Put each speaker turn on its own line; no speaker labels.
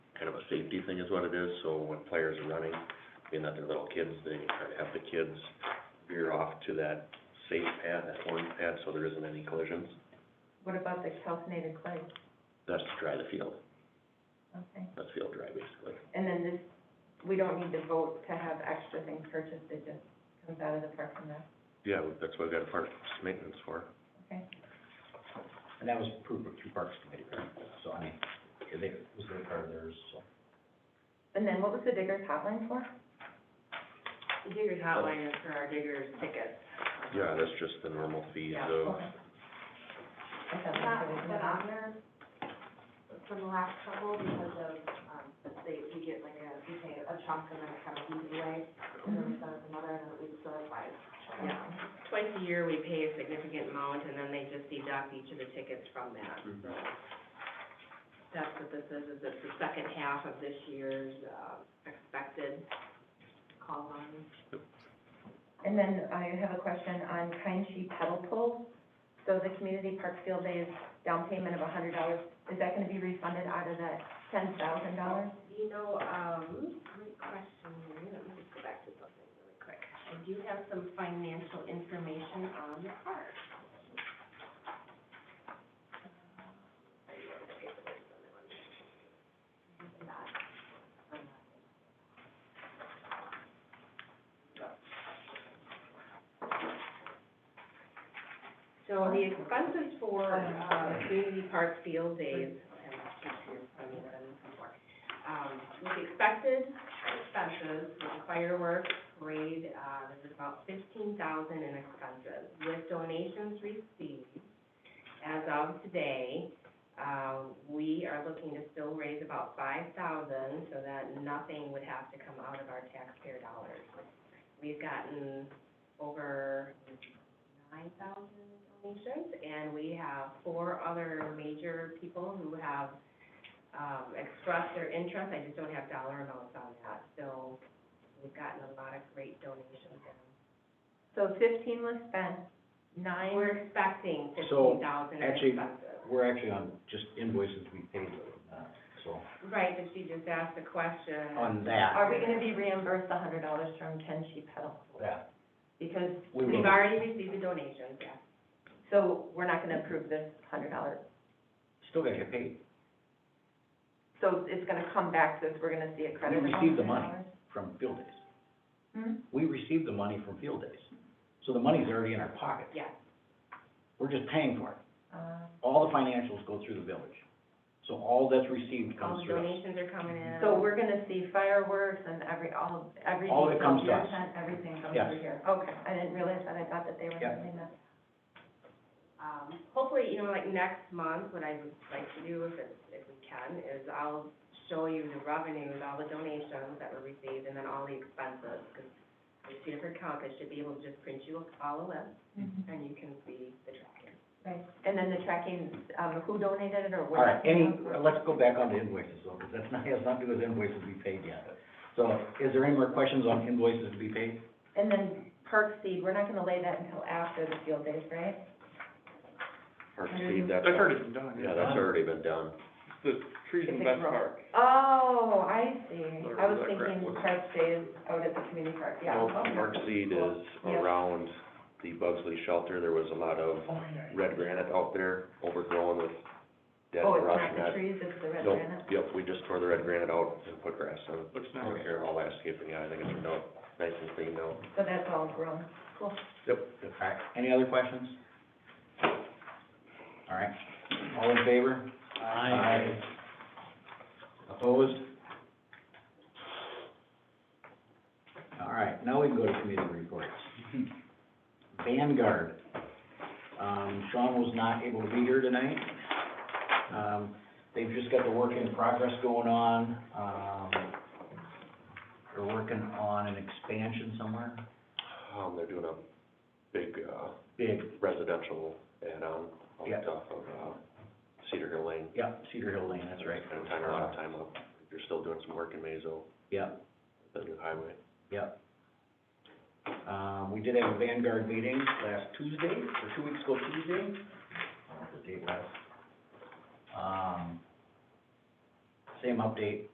safety thing is what it is, so when players are running, being that they're little kids, they try to have the kids veer off to that safe pad, that orange pad, so there isn't any collisions.
What about the calcinated clay?
That's to dry the field,
Okay.
that's field dry basically.
And then this, we don't need to vote to have extra things purchased, it just comes out of the park and rec,
Yeah, that's what we got a park maintenance for.
okay?
And that was approved through Parks Committee, right? So, I mean, yeah, they, it was their part of theirs, so.
And then what was the digger's hotline for?
The digger's hotline is for our digger's tickets.
Yeah, that's just the normal fees
Yeah.
of,
Okay. I thought
Not
that was
been
another-
on there from the last couple because of, um, they, we get like a, we pay a chunk and then it kind of goes away. And then we still have another and we still have five. Yeah, twice a year we pay a significant amount and then they just deduct each of the tickets from that. That's what this is, is it's the second half of this year's, uh, expected call on.
And then I have a question on kind sheet pedal pull. So the community park field day is down payment of a hundred dollars, is that gonna be refunded out of that ten thousand dollars?
You know, um, great question, Mary. Let me just go back to something really quick. I do have some financial information on the park. So the expenses for, uh, community park field days, and I mean, I'm sorry um, with expected expenses, with fireworks, parade, uh, there's about fifteen thousand in expenses. With donations received, as of today, uh, we are looking to still raise about five thousand, so that nothing would have to come out of our taxpayer dollars. We've gotten over nine thousand donations, and we have four other major people who have um, express their interest, I just don't have dollar amounts on that, so we've gotten a lot of great donations in.
So fifteen was spent, nine.
We're expecting
So,
fifteen thousand in
actually-
expenses.
We're actually on just invoices we paid, uh, so,
Right, but she just asked the question.
on that,
Are we gonna be reimbursed a hundred dollars from Ken She Pedal?
that,
Because,
we
We've
will,
already received the donations, yeah.
so we're not gonna approve this hundred dollars.
still gotta get paid
So it's gonna come back to us, we're gonna see a credit of
We
a
received
hundred
the
dollars?
from field days.
Hmm?
We received the money from field days, so the money's already in our pocket.
Yes.
We're just paying for it.
Uh,
All the financials go through the village, so all that's received
All
comes
the
through us.
donations are coming in.
So we're gonna see fireworks and every, all, everything.
All that comes to us.
from your tent, Everything comes
Yes.
through here. Okay, I didn't realize that, I thought that they were
Yep.
sending that.
Um, hopefully, you know, like next month, what I would like to do, if it's, if we can, is I'll show you the revenues, all the donations that were received, and then all the expenses, because there's two different accounts, I should be able to just print you all a list, and you can see the tracking.
Right, and then the tracking, um, who donated it or
All
what?
right, any, let's go back on to invoices, though, because that's not, has nothing to do with invoices we paid yet. So, is there any more questions on invoices to be paid?
And then park seed, we're not gonna lay that until after the field days, right?
Park Seed, that's.
That's already been done,
Yeah, that's already been done.
It's the trees in
It's a
Best
grove.
Park.
Oh, I see.
Or
I was
is that correct?
thinking park days out at the community park, yeah.
Well,
okay.
Park Seed is
Yeah.
around the Bugsley Shelter, there was a lot of red granite out there overgrown with dead
Oh,
brush
it's
and
not the
that-
trees, it's the red
Nope,
granite?
Yep, we just tore the red granite out and put grass in.
Looks nice.
Over here, all landscaping, yeah, I think it's, no, nice and clean now.
So that's all grown. Cool.
Yep.
All right, any other questions? All right, all in favor? Aye. Opposed? All right, now we can go to committee reports. Vanguard, um, Sean was not able to be here tonight. Um, they've just got the work in progress going on, um, they're working on an expansion somewhere,
Um, they're doing a big, uh,
big,
residential add-on off the
Yeah.
top of, uh, Cedar Hill Lane.
Yeah, Cedar Hill Lane, that's right.
Spending time, a lot of time up, they're still doing some work in Mazo,
Yep,
the new highway.
yep. Uh, we did have a Vanguard meeting last Tuesday, or two weeks ago Tuesday. I don't know what the date was. Um, same update,